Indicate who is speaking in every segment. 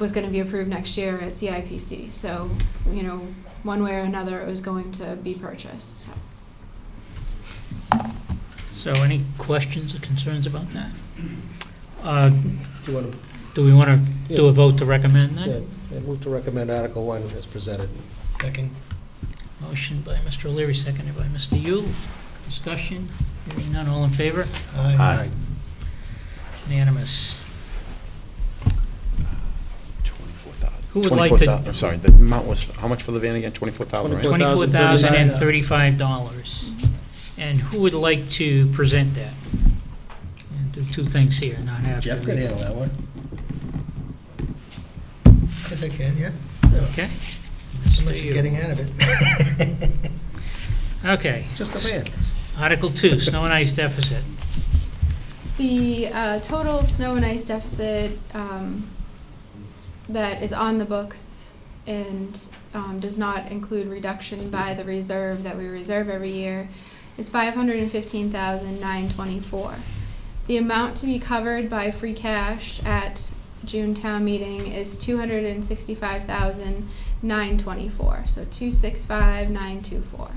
Speaker 1: was gonna be approved next year at CIPC. So, you know, one way or another, it was going to be purchased, so.
Speaker 2: So any questions or concerns about that? Uh,
Speaker 3: You want
Speaker 2: Do we want to do a vote to recommend
Speaker 3: to,
Speaker 2: that?
Speaker 3: move to recommend Article 1 as presented.
Speaker 4: Second.
Speaker 2: Motion by Mr. O'Leary, seconded by Mr. Yule. Discussion? Hearing none, all in favor?
Speaker 4: Aye.
Speaker 2: Unanimous.
Speaker 5: Twenty-four thousand.
Speaker 2: Who would like to,
Speaker 5: I'm sorry, the amount was, how much for the van again? Twenty-four thousand, right?
Speaker 2: twenty-four thousand and thirty-five
Speaker 3: $24,035.
Speaker 2: dollars. And who would like to present that? And do two things here, not have to.
Speaker 3: Jeff could handle that one.
Speaker 4: Yes, I can, yeah.
Speaker 2: Okay?
Speaker 4: So
Speaker 2: Mr.
Speaker 4: much you're
Speaker 2: Yule.
Speaker 4: getting out of it.
Speaker 2: Okay.
Speaker 3: Just a man.
Speaker 2: Article two, snow and ice deficit.
Speaker 1: The uh, total snow and ice deficit um, that is on the books and um, does not include reduction by the reserve that we reserve every year is five hundred and fifteen thousand nine twenty-four. The amount to be covered by free cash at June town meeting is two hundred and sixty-five thousand nine twenty-four, so two six five nine two four,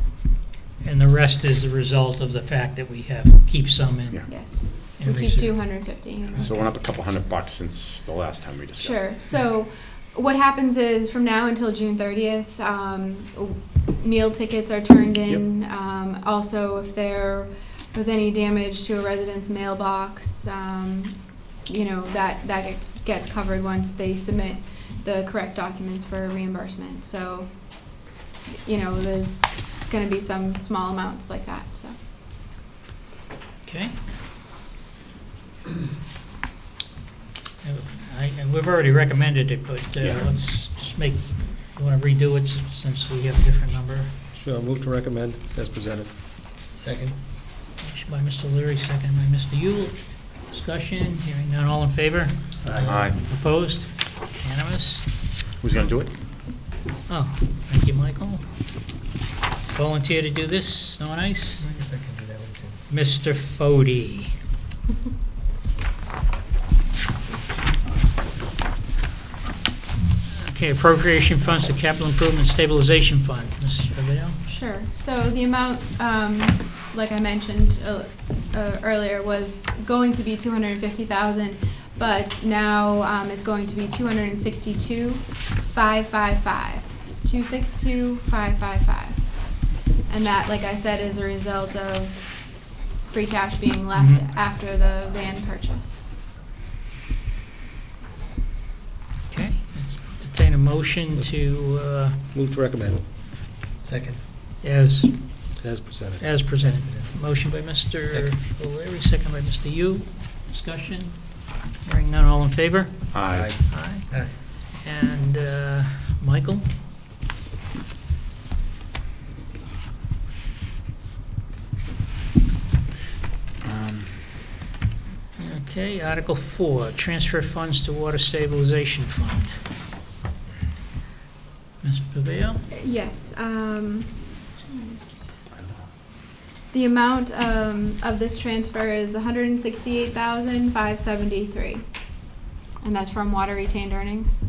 Speaker 2: And the rest is the result of the fact that we have, keep some in.
Speaker 5: Yeah.
Speaker 1: yes.
Speaker 2: in
Speaker 1: We keep
Speaker 2: reserve.
Speaker 1: two hundred and fifty.
Speaker 5: So it went up a couple hundred bucks since the last time we discussed. it.
Speaker 1: Sure. So what happens is from now until June 30th, um, w- meal tickets are turned in. Um, also, if there was any damage to a resident's mailbox, um, you know, that, that gets, gets covered once they submit the correct documents for reimbursement. So, you know, there's going to be some small amounts like that, so.
Speaker 2: Okay. I- and We've already recommended it, but uh,
Speaker 5: Yeah.
Speaker 2: let's just make, you want to redo it s- since we have a different number?
Speaker 3: Sure, move to recommend as presented.
Speaker 4: Second.
Speaker 2: Motion by Mr. Leary, second by Mr. Yule. Discussion, hearing none, all in favor?
Speaker 5: Aye.
Speaker 2: Opposed? Unanimous?
Speaker 5: Who's gonna do it?
Speaker 2: Oh, thank you, Michael. Volunteer to do this, snow and ice?
Speaker 4: I guess I can do that one too.
Speaker 2: Mr. Fode. Okay, appropriation funds to capital improvement stabilization fund, Mrs. Paveo.
Speaker 1: Sure. So the amount, um, like I mentioned uh, uh, earlier, was going to be 250,000, but now um, it's going to be 262,555. 262,555. And that, like I said, is a result of free cash being left
Speaker 2: Mhm.
Speaker 1: after the van purchase.
Speaker 2: Okay, entertain a motion to, uh,
Speaker 3: Move to recommend
Speaker 4: Second.
Speaker 2: as,
Speaker 3: as presented.
Speaker 2: as presented. Motion by Mr.
Speaker 4: Second.
Speaker 2: O'Leary, second by Mr. Yu. Discussion? Hearing none, all in favor?
Speaker 5: Aye.
Speaker 2: Aye.
Speaker 4: Aye.
Speaker 2: And uh, Michael?
Speaker 5: Um,
Speaker 2: Okay, Article 4, transfer funds to water stabilization fund. Ms. Paveo?
Speaker 1: Yes, um, the amount, um, of this transfer is hundred and sixty-eight thousand, five seventy-three. And that's from water retained earnings?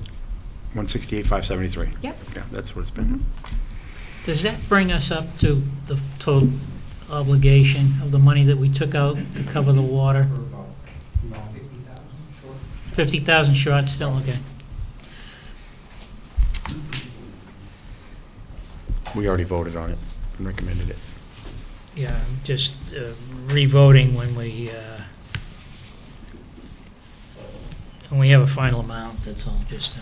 Speaker 5: One sixty-eight, five seventy-three.
Speaker 1: Yep.
Speaker 5: Yeah, that's what it's been.
Speaker 2: Does that bring us up to the total obligation of the money that we took out to cover the water? 50,000 short, still, okay.
Speaker 5: We already voted on it and recommended it.
Speaker 2: Yeah, I'm just uh, revoting when we, uh, when we have a final amount, that's all, just, uh,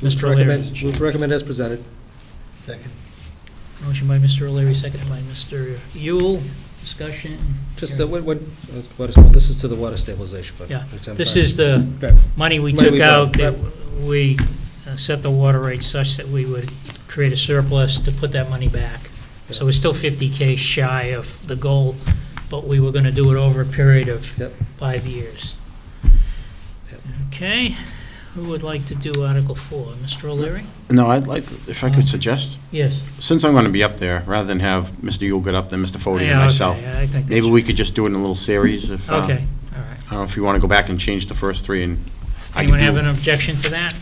Speaker 3: Move to
Speaker 2: Mr. O'Leary.
Speaker 3: recommend- Move to recommend as presented.
Speaker 4: Second.
Speaker 2: Motion by Mr. O'Leary, seconded by Mr. Yule. Discussion?
Speaker 3: Just, uh, what, what, what is- this is to the water stabilization fund.
Speaker 2: Yeah,
Speaker 3: which I'm
Speaker 2: This
Speaker 3: fine.
Speaker 2: is the
Speaker 3: Right.
Speaker 2: money we
Speaker 3: Money
Speaker 2: took
Speaker 3: we
Speaker 2: out,
Speaker 3: got,
Speaker 2: that we uh, set the water rate such that we would create a surplus to put that money back. So we're still 50K shy of the goal, but we were going to do it over a period of
Speaker 3: Yep.
Speaker 2: five years.
Speaker 3: Yep.
Speaker 2: Okay, who would like to do Article 4? Mr. O'Leary?
Speaker 5: No, I'd like, to- if I
Speaker 2: Um,
Speaker 5: could suggest,
Speaker 2: Yes.
Speaker 5: since I'm gonna be up there, rather than have Mr. Yule get up, then Mr. Fode
Speaker 2: Yeah,
Speaker 5: and
Speaker 2: okay,
Speaker 5: myself,
Speaker 2: I think that's-
Speaker 5: maybe we could just do it in a little series if, uh,
Speaker 2: Okay, all right.
Speaker 5: I don't know if you wanna go back and change the first three and. I
Speaker 2: Anyone
Speaker 5: could do-
Speaker 2: have an objection to that?